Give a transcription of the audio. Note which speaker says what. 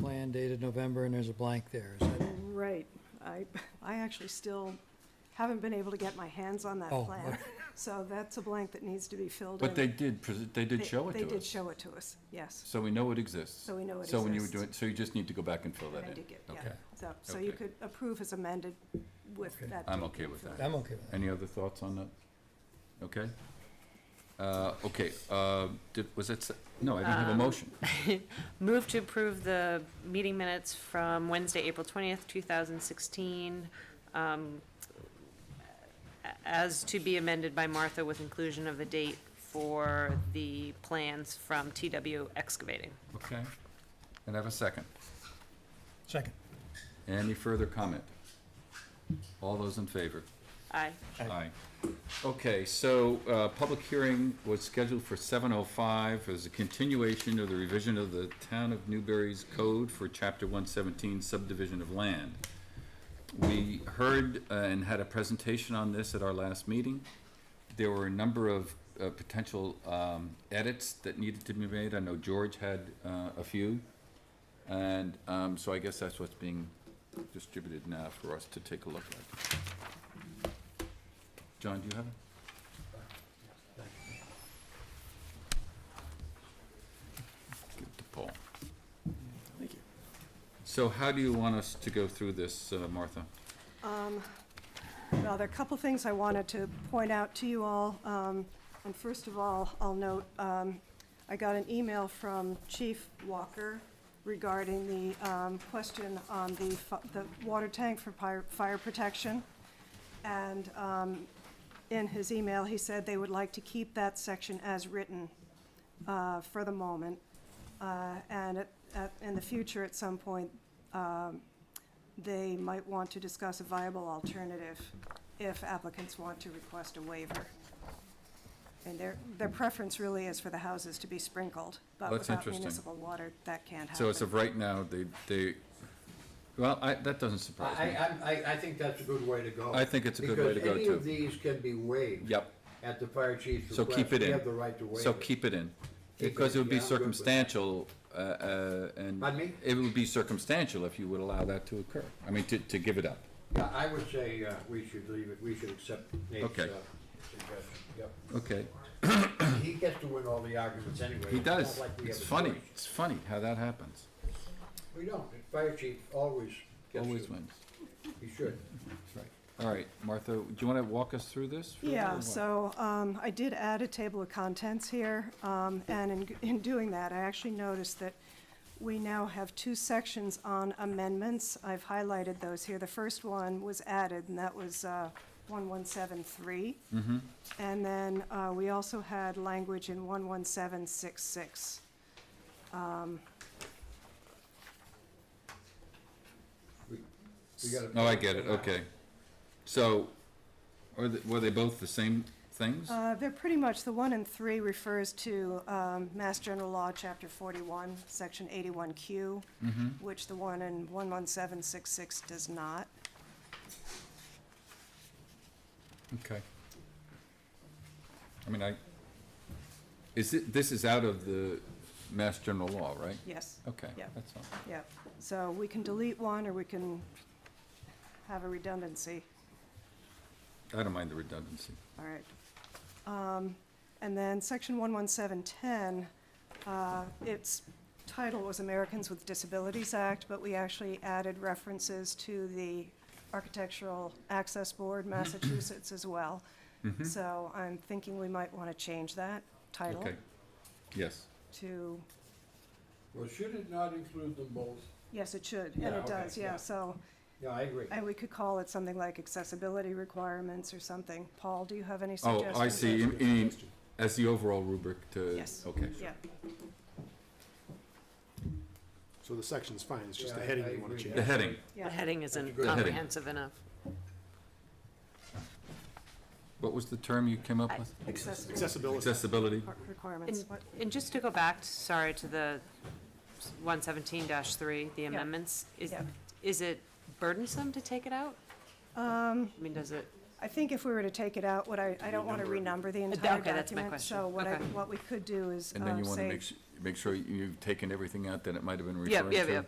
Speaker 1: sign dated November, and there's a blank there. Is that-
Speaker 2: Right. I, I actually still haven't been able to get my hands on that
Speaker 1: Oh,
Speaker 2: plan.
Speaker 1: okay.
Speaker 2: So that's a blank that needs to be filled in.
Speaker 3: But they did, pres- they did
Speaker 2: They-
Speaker 3: show it to us.
Speaker 2: They did show it to us, yes.
Speaker 3: So we know it exists.
Speaker 2: So we know it
Speaker 3: So when you were
Speaker 2: exists.
Speaker 3: doing, so you just need to go back and fill that
Speaker 2: I
Speaker 3: in.
Speaker 2: did get- yeah.
Speaker 3: Okay.
Speaker 2: So, so you
Speaker 3: Okay.
Speaker 2: could approve as amended with
Speaker 1: Okay.
Speaker 2: that.
Speaker 3: I'm
Speaker 2: date
Speaker 3: okay
Speaker 2: being
Speaker 3: with
Speaker 2: filled
Speaker 3: that.
Speaker 2: in.
Speaker 1: I'm okay with that.
Speaker 3: Any other thoughts on that? Okay? Uh, okay, uh, did, was it, se- no, I didn't have a
Speaker 2: Um,
Speaker 3: motion.
Speaker 4: Move to approve the meeting minutes from Wednesday, April 20th, 2016, um, a- as to be amended by Martha with inclusion of the date for the plans from TW Excavating.
Speaker 3: Okay. And I have a second.
Speaker 1: Second.
Speaker 3: Any further comment? All those in favor?
Speaker 4: Aye.
Speaker 3: Aye. Okay, so, uh, public hearing was scheduled for seven oh five as a continuation of the revision of the Town of Newberry's code for chapter one seventeen subdivision of land. We heard uh, and had a presentation on this at our last meeting. There were a number of, uh, potential, um, edits that needed to be made. I know George had, uh, a few. And, um, so I guess that's what's being distributed now for us to take a look at. John, do you have it? Give it to Paul.
Speaker 1: Thank you.
Speaker 3: So how do you want us to go through this, uh, Martha?
Speaker 2: Well, there are a couple things I wanted to point out to you all. Um, And first of all, I'll note, um, I got an email from Chief Walker regarding the um, question on the fi- the water tank for pyr- fire protection. And um, in his email, he said they would like to keep that section as written uh, for the moment. Uh, And at- at- in the future, at some point, um, they might want to discuss a viable alternative if applicants want to request a waiver. And their, their preference really is for the houses to be sprinkled, but
Speaker 3: That's
Speaker 2: without
Speaker 3: interesting.
Speaker 2: municipal water, that can't happen.
Speaker 3: So as of right now, they, they, well, I, that doesn't surprise
Speaker 5: I,
Speaker 3: me.
Speaker 5: I, I, I think that's a good way to go.
Speaker 3: I think it's a good way to go,
Speaker 5: Because any
Speaker 3: too.
Speaker 5: of these can be waived.
Speaker 3: Yep,
Speaker 5: At the fire chief's
Speaker 3: so
Speaker 5: request.
Speaker 3: keep it
Speaker 5: We
Speaker 3: in.
Speaker 5: have the right to waive it.
Speaker 3: So keep it in,
Speaker 5: Keep
Speaker 3: because
Speaker 5: it,
Speaker 3: it would be
Speaker 5: yeah, I'm good with that.
Speaker 3: circumstantial, uh, uh, and.
Speaker 5: Pardon me?
Speaker 3: It would be circumstantial if you would allow that to occur, I mean, to, to give it up.
Speaker 5: Yeah, I would say, uh, we should leave it, we should accept Nate's, uh,
Speaker 3: Okay.
Speaker 5: suggestion, yep.
Speaker 3: Okay,
Speaker 5: He gets to win all the arguments anyway.
Speaker 3: he
Speaker 5: It's not
Speaker 3: does,
Speaker 5: like we
Speaker 3: it's
Speaker 5: have a
Speaker 3: funny,
Speaker 5: choice.
Speaker 3: it's funny how that happens,
Speaker 5: We don't, the fire chief always gets to,
Speaker 3: always wins.
Speaker 5: he should.
Speaker 3: That's right. All right, Martha, do you want to walk us through this? for a little
Speaker 2: Yeah,
Speaker 3: while?
Speaker 2: so um, I did add a table of contents here, um, and in, in doing that, I actually noticed that we now have two sections on amendments. I've highlighted those here. The first one was added, and that was uh, 1173. And then uh, we also had language in 11766.
Speaker 5: We- we gotta-
Speaker 3: Oh, I get it, okay. So, are the- were they both the same things?
Speaker 2: Uh, They're pretty much, the one and three refers to um, Mass General Law, Chapter 41, Section 81Q, which the one in 11766 does not.
Speaker 3: Okay. I mean, I, is it, this is out of the Mass General Law, right?
Speaker 2: Yes,
Speaker 3: Okay,
Speaker 2: Yeah.
Speaker 3: that's all.
Speaker 2: yeah. So we can delete one, or we can have a redundancy.
Speaker 3: I don't mind the redundancy.
Speaker 2: All right. Um, And then section 11710, uh, its title was Americans with Disabilities Act, but we actually added references to the Architectural Access Board, Massachusetts as well.
Speaker 3: Mm-hmm.
Speaker 2: So I'm thinking we might want to change that title
Speaker 3: Okay. Yes.
Speaker 2: to,
Speaker 5: Well, should it not include them both?
Speaker 2: yes, it should,
Speaker 5: Yeah,
Speaker 2: and it
Speaker 5: okay,
Speaker 2: does, yeah,
Speaker 5: yeah.
Speaker 2: so.
Speaker 5: Yeah, I agree.
Speaker 2: And we could call it something like accessibility requirements or something. Paul, do you have any
Speaker 3: Oh,
Speaker 2: suggestions?
Speaker 3: I see, You mean as the overall rubric to.
Speaker 2: Yes.
Speaker 3: Okay.
Speaker 2: Yeah,
Speaker 6: So the section's fine, it's just the
Speaker 5: Yeah, I-
Speaker 6: heading
Speaker 5: I
Speaker 6: you want
Speaker 5: agree.
Speaker 6: to change.
Speaker 3: The heading,
Speaker 4: The
Speaker 2: yeah.
Speaker 4: heading
Speaker 5: That's
Speaker 4: isn't
Speaker 5: good. The
Speaker 3: heading.
Speaker 4: comprehensive enough.
Speaker 3: what was the term you came up
Speaker 4: I-
Speaker 3: with?
Speaker 2: Accessibility
Speaker 6: Accessibility.
Speaker 3: Accessibility?
Speaker 2: requir- requirements.
Speaker 4: And,
Speaker 2: What-
Speaker 4: and just to go back, sorry, to the one seventeen three, the amendments, is,
Speaker 2: Yeah.
Speaker 4: is it burdensome to take it out? Um. I mean, does it,
Speaker 2: I think if we were to take it out, what I, I don't want to renumber the entire document.
Speaker 4: Uh, okay, that's my question.
Speaker 2: So what I,
Speaker 4: Okay.
Speaker 2: what we could do is
Speaker 3: And then
Speaker 2: um,
Speaker 3: you want to
Speaker 2: say
Speaker 3: make, s- make sure you've taken everything out that it might have been
Speaker 4: Yeah,
Speaker 3: referring to?
Speaker 4: yeah, yeah.